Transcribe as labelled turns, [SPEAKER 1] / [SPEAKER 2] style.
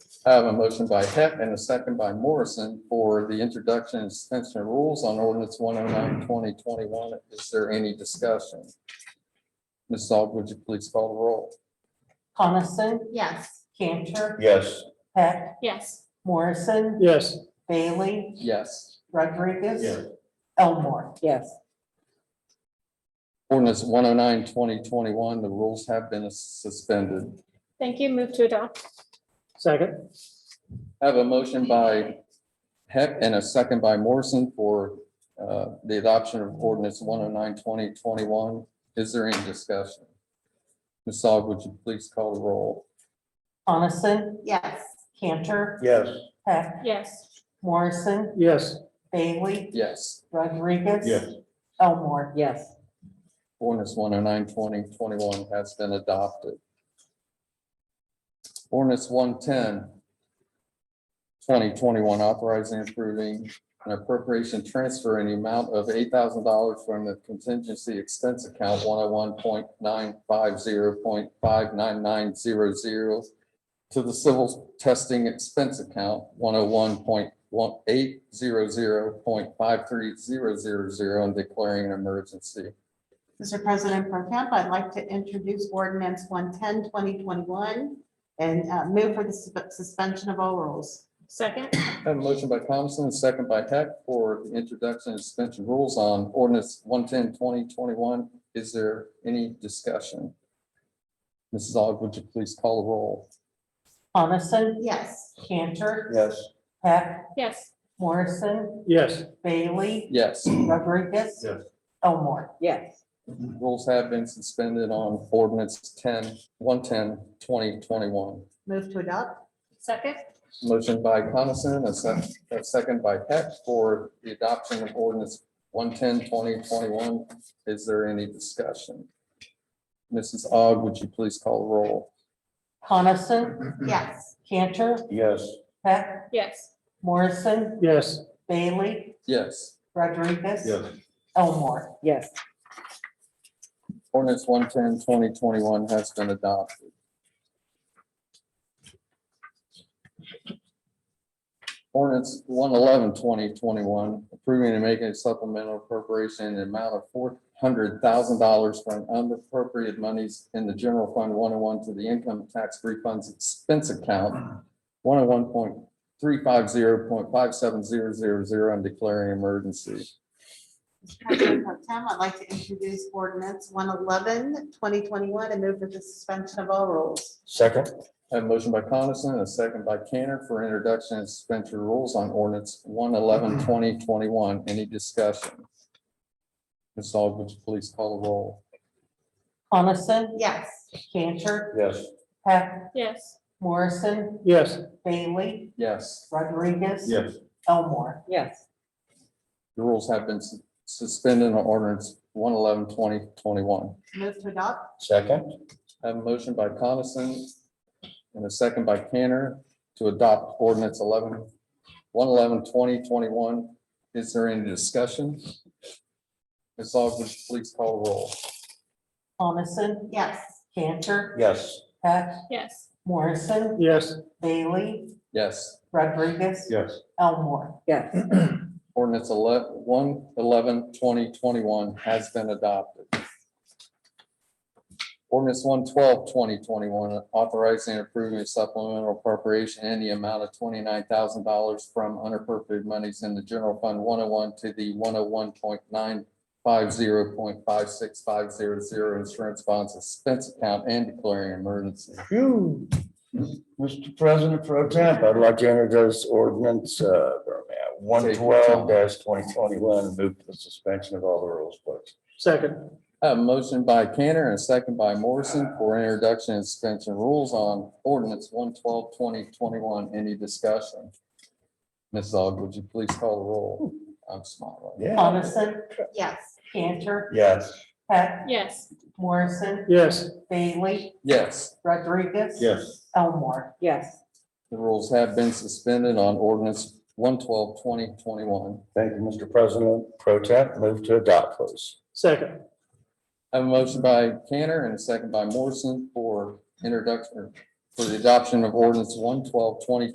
[SPEAKER 1] I have a motion by Hep and a second by Morrison for the introduction and suspension of rules on ordinance 109 2021. Is there any discussion? Ms. Aug, would you please call the roll?
[SPEAKER 2] Coniston,
[SPEAKER 3] Yes.
[SPEAKER 2] Cantor,
[SPEAKER 4] Yes.
[SPEAKER 2] Peck,
[SPEAKER 3] Yes.
[SPEAKER 2] Morrison,
[SPEAKER 5] yes,
[SPEAKER 2] Bailey,
[SPEAKER 1] Yes.
[SPEAKER 2] Rodriguez.
[SPEAKER 4] Yes.
[SPEAKER 2] Elmore. Yes.
[SPEAKER 1] Ordinance 109 2021. the rules have been suspended.
[SPEAKER 3] Thank you. Move to adopt.
[SPEAKER 5] second,
[SPEAKER 1] I have a motion by Heck and a second by Morrison for uh, the adoption of ordinance 109 2021. Is there any discussion? Ms. Aug, would you please call the roll?
[SPEAKER 2] Coniston,
[SPEAKER 3] Yes.
[SPEAKER 2] Cantor,
[SPEAKER 4] Yes.
[SPEAKER 2] Peck,
[SPEAKER 3] Yes.
[SPEAKER 2] Morrison,
[SPEAKER 5] yes,
[SPEAKER 2] Bailey,
[SPEAKER 1] Yes.
[SPEAKER 2] Rodriguez.
[SPEAKER 4] Yes.
[SPEAKER 2] Elmore. Yes.
[SPEAKER 1] Ordinance 109 2021 has been adopted. Ordinance 110 2021 authorizing and approving an appropriation transfer in the amount of eight thousand dollars from the contingency expense account one oh one point nine five zero point five nine nine zero zero to the civil testing expense account one oh one point one eight zero zero point five three zero zero zero and declaring an emergency.
[SPEAKER 6] Mr. President Pro Temp, I'd like to introduce ordinance 110 2021 and uh, move for the sus- suspension of all rules.
[SPEAKER 3] Second.
[SPEAKER 1] I Have a motion by Thompson, a second by Heck for the introduction and suspension rules on ordinance 110 2021. Is there any discussion? Mrs. Aug, would you please call the roll?
[SPEAKER 2] Coniston,
[SPEAKER 6] Yes.
[SPEAKER 2] Cantor,
[SPEAKER 4] Yes.
[SPEAKER 2] Peck,
[SPEAKER 3] Yes.
[SPEAKER 2] Morrison,
[SPEAKER 5] yes,
[SPEAKER 2] Bailey,
[SPEAKER 1] Yes,
[SPEAKER 2] Rodriguez.
[SPEAKER 4] Yes.
[SPEAKER 2] Elmore.
[SPEAKER 7] yes,
[SPEAKER 1] rules have been suspended on ordinance 10 110 2021.
[SPEAKER 6] Move to adopt?
[SPEAKER 3] Second.
[SPEAKER 1] Motion by Coniston, a sec- a second by Heck for the adoption of ordinance 110 2021. Is there any discussion? Mrs. Aug, would you please call the roll?
[SPEAKER 2] Coniston,
[SPEAKER 6] Yes.
[SPEAKER 2] Cantor,
[SPEAKER 4] Yes.
[SPEAKER 2] Peck,
[SPEAKER 3] Yes.
[SPEAKER 2] Morrison,
[SPEAKER 5] yes,
[SPEAKER 2] Bailey,
[SPEAKER 1] Yes.
[SPEAKER 2] Rodriguez.
[SPEAKER 4] Yes.
[SPEAKER 2] Elmore.
[SPEAKER 7] yes.
[SPEAKER 1] Ordinance 110 2021 has been adopted. Ordinance 111 2021 approving and making a supplemental appropriation in the amount of four hundred thousand dollars from unappropriated monies in the general fund one oh one to the income tax refunds expense account one oh one point three five zero point five seven zero zero zero and declaring emergency.
[SPEAKER 6] Mr. President Pro Tem, I'd like to introduce ordinance 111 2021 and move for the suspension of all rules.
[SPEAKER 4] Second.
[SPEAKER 1] I Have a motion by Coniston, and a second by Cantor for introduction and suspension of rules on ordinance 111 2021. Any discussion? Ms. Aug, would you please call the roll?
[SPEAKER 2] Coniston,
[SPEAKER 6] Yes.
[SPEAKER 2] Cantor,
[SPEAKER 4] Yes.
[SPEAKER 2] Peck,
[SPEAKER 3] Yes.
[SPEAKER 2] Morrison,
[SPEAKER 5] yes,
[SPEAKER 2] Bailey,
[SPEAKER 1] Yes,
[SPEAKER 2] Rodriguez.
[SPEAKER 4] Yes.
[SPEAKER 2] Elmore.
[SPEAKER 7] Yes,
[SPEAKER 1] the rules have been sus- suspended on ordinance 111 2021.
[SPEAKER 6] Move to adopt?
[SPEAKER 4] Second.
[SPEAKER 1] I Have a motion by Coniston and a second by Cantor to adopt ordinance 11 111 one eleven twenty twenty-one. Is there any discussion? Ms. Aug, would you please call the roll?
[SPEAKER 2] Coniston,
[SPEAKER 6] Yes.
[SPEAKER 2] Cantor,
[SPEAKER 4] Yes.
[SPEAKER 2] Peck,
[SPEAKER 3] Yes.
[SPEAKER 2] Morrison,
[SPEAKER 5] yes,
[SPEAKER 2] Bailey,
[SPEAKER 1] Yes.
[SPEAKER 2] Rodriguez.
[SPEAKER 4] Yes.
[SPEAKER 2] Elmore.
[SPEAKER 7] yes,
[SPEAKER 1] Ordinance 11 one eleven twenty twenty-one has been adopted. Ordinance 112 2021 authorizing and approving a supplemental appropriation in the amount of twenty-nine thousand dollars from unappropriated monies in the general fund one oh one to the one oh one point nine five zero point five six five zero zero insurance bonds expense account and declaring emergency.
[SPEAKER 4] Phew. Mr. President Pro Temp, I'd like to introduce ordinance uh, one twelve twenty twenty-one and move to the suspension of all the rules, please.
[SPEAKER 5] second,
[SPEAKER 1] I have A motion by Cantor and a second by Morrison for introduction and suspension of rules on ordinance 112 2021. Any discussion? Ms. Aug, would you please call the roll? I'm smiling.
[SPEAKER 4] Yeah.
[SPEAKER 2] Coniston,
[SPEAKER 6] Yes.
[SPEAKER 2] Cantor,
[SPEAKER 4] Yes.
[SPEAKER 2] Peck,
[SPEAKER 3] Yes.
[SPEAKER 2] Morrison,
[SPEAKER 5] yes,
[SPEAKER 2] Bailey,
[SPEAKER 1] Yes,
[SPEAKER 2] Rodriguez.
[SPEAKER 4] Yes.
[SPEAKER 2] Elmore.
[SPEAKER 7] yes,
[SPEAKER 1] the rules have been suspended on ordinance 112 2021.
[SPEAKER 4] Thank you, Mr. President Pro Temp. Move to adopt, please.
[SPEAKER 5] second,
[SPEAKER 1] I have a motion by Cantor and a second by Morrison for introduction, for the adoption of ordinance 112 2021.